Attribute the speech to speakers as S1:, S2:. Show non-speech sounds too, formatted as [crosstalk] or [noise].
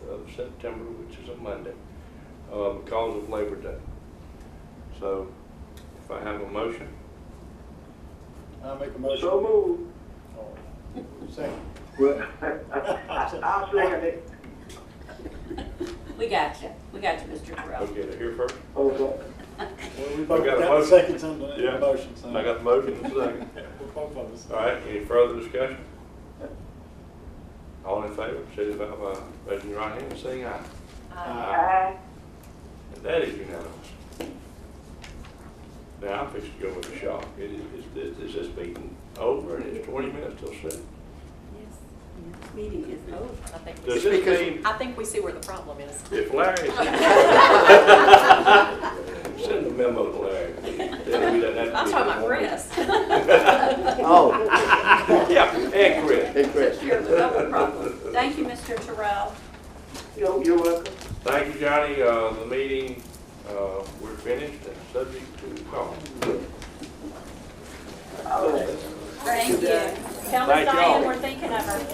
S1: September, which is a Monday, uh, because of Labor Day. So if I have a motion,
S2: I make a motion.
S3: So moved.
S2: Oh, Second.
S3: Well, I'll second it.
S4: [laughs] We got you. We got you, Mr. Terrell.
S1: I'll get it here first.
S3: Okay.
S2: Well, we
S1: I got a
S2: both got the
S1: motion.
S2: seconds on the
S1: Yeah.
S2: the motion, so.
S1: I got the motion and the second.
S2: We're both of us.
S1: [laughs] All right, any further discussion? All in favor, signify by raising your right hand and saying aye.
S2: Aye.
S3: Aye.
S1: And that is unanimous. Now, I'm fixing to go with a shock. It is, it's, it's just beating over and it's twenty minutes till seven.
S4: Yes, This meeting is over.
S5: I think we
S1: Does
S5: see,
S1: this mean
S5: I think we see where the problem is.
S1: if Larry,
S5: [laughs]
S1: send a memo to Larry. Tell him he
S5: [laughs]
S1: doesn't have to
S5: I'm
S1: be
S5: talking about
S1: here.
S5: Chris. [laughs]
S6: Oh,
S1: Yeah, and Chris.
S6: hey Chris.
S4: You're the double problem. Thank you, Mr. Terrell.
S3: You're, you're welcome.
S1: Thank you, Johnny. Uh, the meeting, uh, we're finished and subject to call.
S3: All right.
S4: Thank you. Tell Miss
S1: Thank y'all.
S4: Diane we're thinking of her.